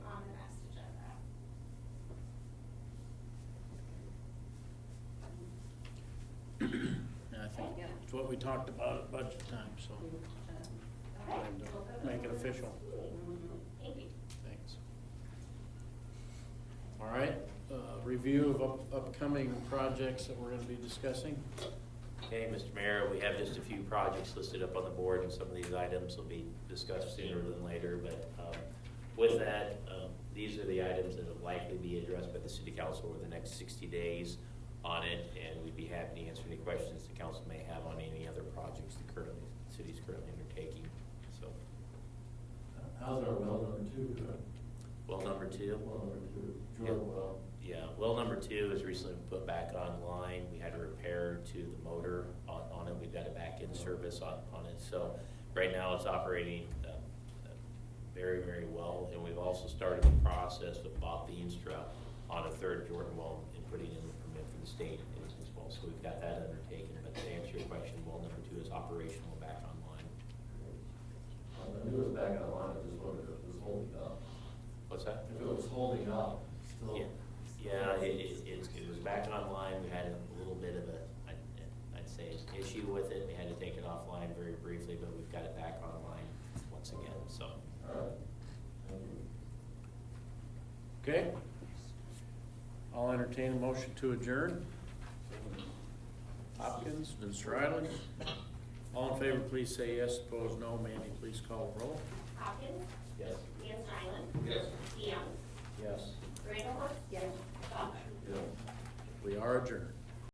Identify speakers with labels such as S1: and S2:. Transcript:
S1: Um,
S2: It's what we talked about at budget time, so. Time to Make it official.
S1: Mm-hmm.
S2: Thanks. All right, uh, review of up- upcoming projects that we're gonna be discussing.
S3: Okay, Mr. Mayor, we have just a few projects listed up on the board, and some of these items will be discussed sooner than later, but um, with that, um, these are the items that will likely be addressed by the city council over the next sixty days on it, and we'd be happy to answer any questions the council may have on any other projects the currently, the city's currently undertaking, so.
S4: How's our well number two doing?
S3: Well, number two.
S4: Well number two, Jordan well.
S3: Yeah, well, number two is recently put back online. We had a repair to the motor on, on it. We've got it back in service on, on it. So right now it's operating, uh, uh, very, very well. And we've also started the process with Bob Beanstra on a third Jordan well and putting in the permit for the state as well. So we've got that undertaken. But to answer your question, well, number two is operational back online.
S4: Well, If Um, it was back on line, I just wondered if it was holding up.
S3: What's that?
S4: If it was holding up, still.
S3: Yeah, yeah, it, it, it's- it was back online, we had a little bit of a, I'd, I'd say, issue with it, we had to take it offline very briefly, but we've got it back online once again, so.
S4: All right. Thank you.
S2: Okay? I'll entertain a motion to adjourn. Hopkins, Mr. Riley. All in favor, please say yes. Opposed, no. Mandy, please call roll.
S1: Hopkins,
S3: Yes.
S1: Van Stuylen,
S4: Yes.
S1: DeYoung,
S2: Yes.
S1: Randall Yes. Butler.
S4: Yeah.
S2: We are adjourned.